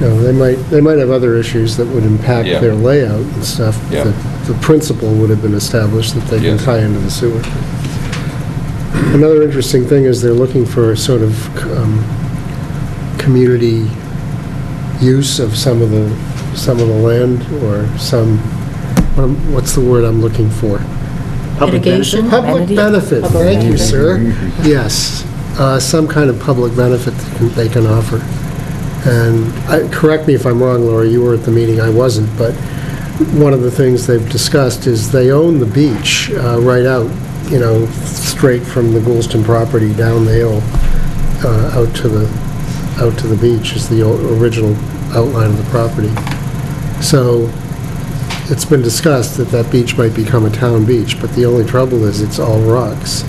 No, they might, they might have other issues that would impact Yeah. their layout and stuff. Yeah. The- The principle would have been established that they can Yes. tie into the sewer. Another interesting thing is they're looking for sort of um, community use of some of the, some of the land or some, what am- what's the word I'm looking for? Public benefit? Mitigation? Public Amenity? benefit, Public thank you, benefit. sir. Yes, Uh, some kind of public benefit that can- they can offer. And, I- correct me if I'm wrong, Laura, you were at the meeting, I wasn't, but one of the things they've discussed is they own the beach uh, right out, you know, straight from the Goulston property down the hill, uh, out to the, out to the beach is the o- original outline of the property. So it's been discussed that that beach might become a town beach, but the only trouble is it's all rocks.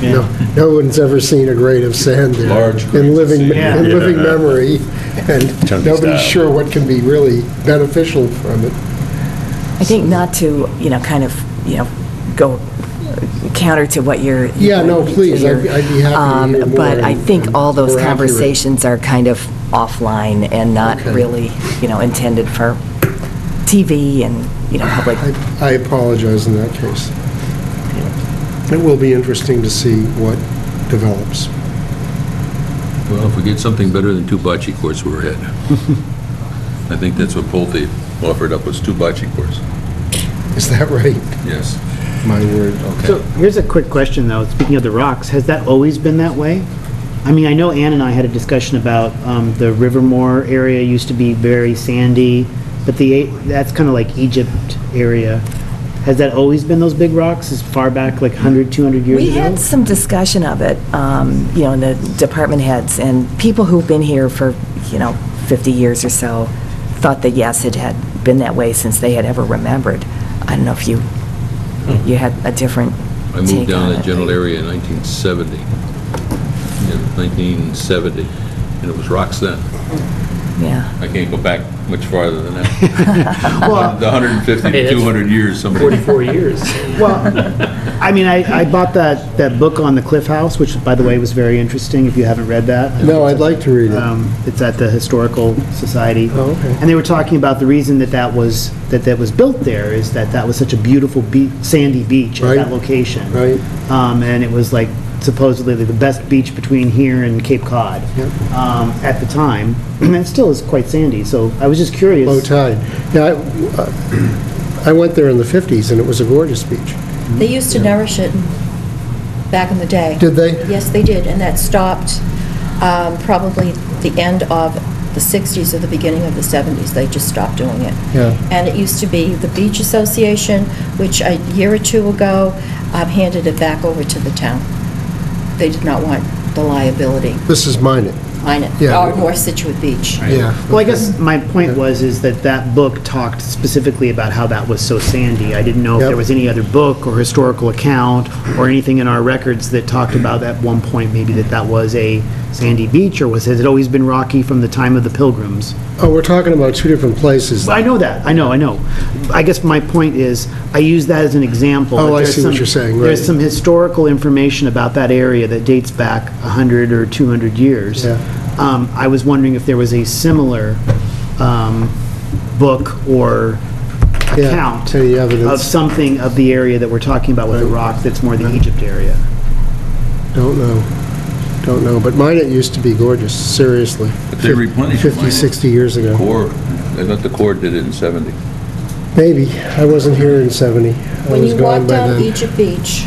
No, no one's ever seen a grade of sand there. Large grains In of living, sand. in Yeah. living Yeah. memory, Tony's and nobody's style. sure what can be really beneficial from it. I think not to, you know, kind of, you know, go counter to what you're... Yeah, no, please, I'd- I'd be happy to Um, hear more But I and- think all those more accurate. conversations are kind of offline and not Okay. really, you know, intended for TV and, you know, public. I- I apologize in that case. It will be interesting to see what develops. Well, if we get something better than two bocce courts, we're ahead. I think that's what Pulte offered up, was two bocce courts. Is that right? Yes. My word. Okay. So here's a quick question, though. Speaking of the rocks, has that always been that way? I mean, I know Ann and I had a discussion about um, the Rivermore area used to be very sandy, but the, that's kind of like Egypt area. Has that always been those big rocks as far back, like 100, 200 years ago? We had some discussion of it, um, you know, in the department heads, and people who've been here for, you know, 50 years or so thought that, yes, it had been that way since they had ever remembered. I don't know if you, you had a different Hmm. I moved take down on that it. general area in 1970. Yeah, 1970, and it was rocks then. Yeah. I can't go back much farther than that. The 150 to Hey, that's 200 years, somebody. 44 years. Well, I mean, I, I bought that, that book on the Cliff House, which, by the way, was very interesting, if you haven't read that. No, I'd like to read it. Um, It's at the Historical Society. Oh, okay. And they were talking about the reason that that was, that that was built there is that that was such a beautiful beach, sandy beach at Right. that location. Right. Um, And it was like supposedly the best beach between here and Cape Cod Yep. um, at the time. And it still is quite sandy, so I was just curious. Low tide. Yeah, I- uh, I went there in the 50s, and it was a gorgeous beach. They used to nourish it back in the day. Did they? Yes, they did, and that stopped um, probably the end of the 60s or the beginning of the 70s. They just stopped doing it. Yeah. And it used to be the Beach Association, which a year or two ago um, handed it back over to the town. They did not want the liability This is mine, on it, Yeah. or North Situate Beach. yeah. Well, I guess my point was, is that that book talked specifically about how that was so sandy. I didn't know if Yep. there was any other book or historical account or anything in our records that talked about at one point, maybe that that was a sandy beach, or was, has it always been rocky from the time of the pilgrims? Oh, we're talking about two different places. Well, I know that, I know, I know. I guess my point is, I use that as an example. Oh, that I there's see what some- you're saying, right. There's some historical information about that area that dates back 100 or 200 years. Yeah. Um, I was wondering if there was a similar um, book or Yeah, account any of evidence? something of the area that we're talking about with the rock that's more the Egypt area. Don't know, don't know, but mine, it used to be gorgeous, seriously. But they replenished 50, mine. 60 years ago. Core, I thought the Corps did it in 70. Maybe, I wasn't here in 70. I When was you gone walk by down then. Egypt Beach,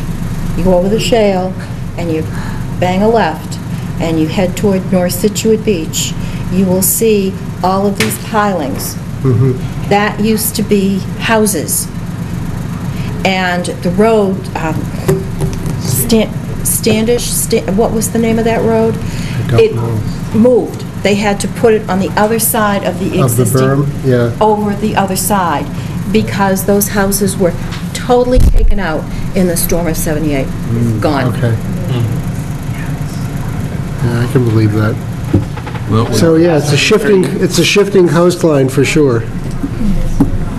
you go over the shale, and you bang a left, and you head toward North Situate Beach, you will see all of these pilings. Mm-hmm. That used to be houses. And the road, um, Stan- Standish, Sta- what was the name of that road? don't It know. moved. They had to put it on the other side of the Of the existing... berm? Yeah. Over the other side, because those houses were totally taken out in the storm of 78. Gone. Okay. Hmm. Yeah, I can believe that. Well, we- So, yeah, it's a shifting, it's a shifting coastline for sure.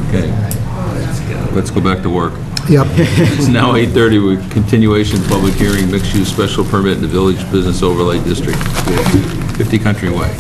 okay. Let's go back to work. Yep, It's now 8:30, with continuation, public hearing, mixed-use special permit in the Village Business Overlay District, 50 Country Way.